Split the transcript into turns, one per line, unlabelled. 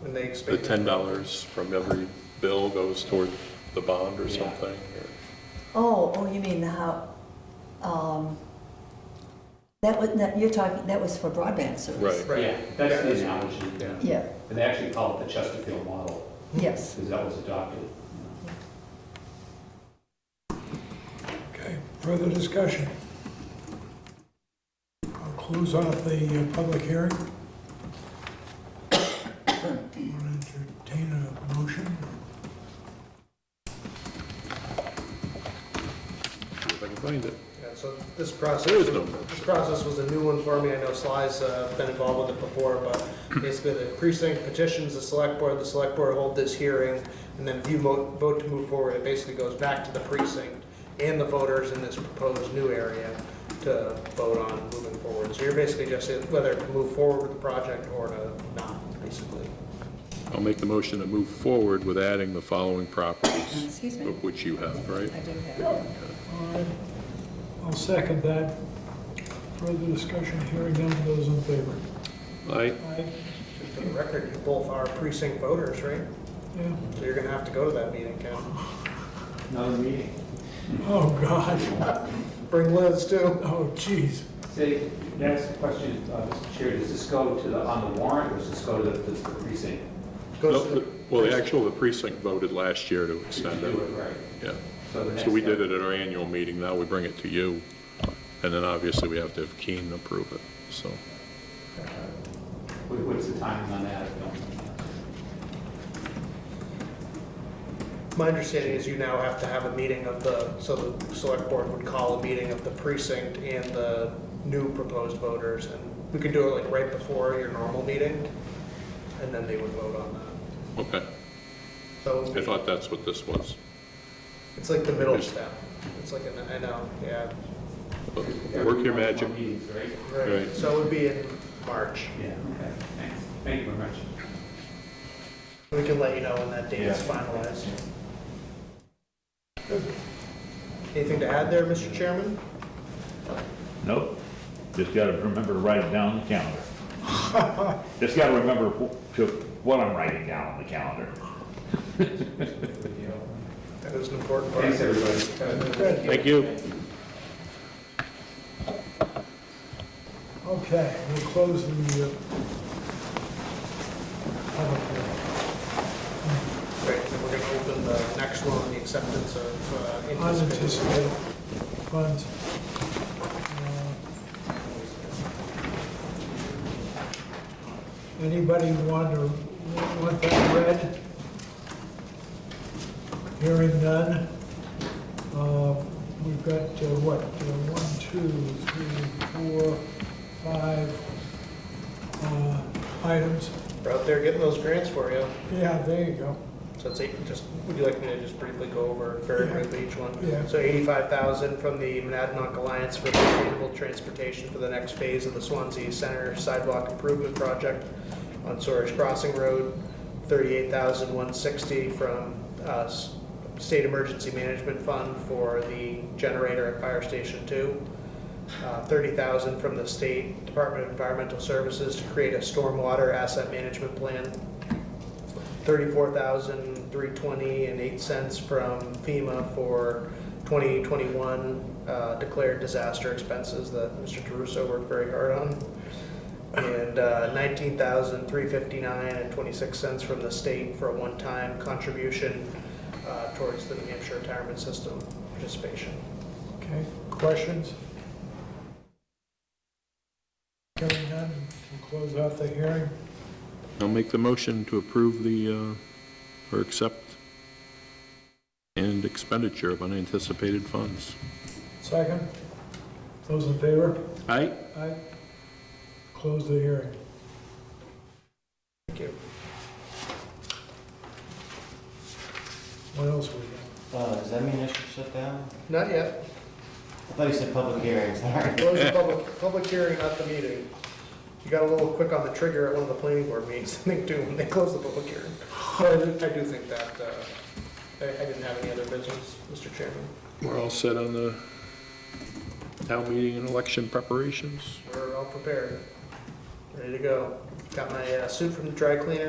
when they
The
expand.
ten dollars from every bill goes toward the bond or
Yeah.
something?
Oh, oh, you mean how, um, that was, that, you're talking, that was for broadband service.
Right.
Right.
Yeah, that's the
Yeah.
analogy.
Yeah.
Yeah,
And they actually call it the Chesterfield model,
yes.
because that was adopted.
Okay, further discussion? I'll close off the uh, public hearing. I'll Entertain a motion.
If I can find it.
Yeah, so this process,
There is no motion.
this process was a new one for me. I know Sly's uh, been involved with it before, but basically the precinct petitions the select board, the select board hold this hearing, and then if you mo- vote to move forward, it basically goes back to the precinct and the voters in this proposed new area to vote on moving forward. So you're basically just whether to move forward with the project or to not, basically.
I'll make the motion to move forward with adding the following properties.
Excuse me.
Of which you have, right?
do have.
All right, I'll second that. Further discussion, hearing none, those in favor?
Aye.
Aye,
Just for the record, you both are precinct voters, right?
yeah,
So you're gonna have to go to that meeting, Ken.
Another meeting.
oh, God,
Bring Liz too.
oh, jeez.
Say, that's the question, uh, Mr. Chair, does this go to the, on the warrant, or does this go to the does the precinct?
Goes to the-
Well, the actual, the precinct voted last year to extend
Do
it,
it, right?
yeah.
So the
So we
next
did
step-
it at our annual meeting, now we bring it to you. And then obviously we have to have Keene approve it, so.
What- What's the timing on that? I don't-
My understanding is you now have to have a meeting of the, so the select board would call a meeting of the precinct and the new proposed voters, and we could do it like right before your normal meeting, and then they would vote on that.
Okay, I
So
thought that's what this was.
it's like the middle step. It's like, an I know, yeah,
But Work your
Every month,
magic.
more meetings, right?
right.
Right.
So it would be in March.
Yeah, okay, thanks. Thank you very much.
We can let you know when that date is
Yeah.
finalized. Anything to add there, Mr. Chairman?
Nope, just gotta remember to write it down on the calendar. Just gotta remember wh- to, what I'm writing down on the calendar.
That is an important part.
Thanks, everybody.
Thank you.
Okay, we'll close the, uh, public hearing.
Great, then we're gonna open the next one, the acceptance of uh, anticipated.
unanticipated funds. uh, Anybody want to, want that read? Hearing none. Uh, We've got, uh, what, uh, one, two, three, four, five uh, items.
We're out there getting those grants for you.
Yeah, there you go.
So it's eight, just, would you like me to just briefly go over very
Yeah.
briefly each one?
Yeah.
So eighty-five thousand from the Monadnock Alliance for sustainable transportation for the next phase of the Swansea Center sidewalk improvement project on Sorish Crossing Road. Thirty-eight thousand one sixty from, uh, S- State Emergency Management Fund for the generator at Fire Station Two. Uh, thirty thousand from the State Department of Environmental Services to create a stormwater asset management plan. Thirty-four thousand three twenty and eight cents from FEMA for 2021 uh, declared disaster expenses that Mr. Caruso worked very hard on. And uh, 19,359 and 26 cents from the state for a one-time contribution uh, towards the New Hampshire retirement system participation.
Okay, questions? Hearing none, we'll close off the hearing.
I'll make the motion to approve the, uh, or accept and expenditure of unanticipated funds.
Second, those in favor?
Aye?
Aye. Close the hearing.
Thank you.
What else we got?
Uh, does that mean I should shut down?
Not yet.
I thought you said public hearing, sorry.
Close the public, public hearing, not the meeting. You got a little quick on the trigger at one of the planning board meetings, I think, too, when they closed the public hearing. But I do- I do think that, uh, I I didn't have any other business, Mr. Chairman.
We're all set on the town meeting and election preparations?
We're all prepared, ready to go. Got my uh, suit from the dry cleaner,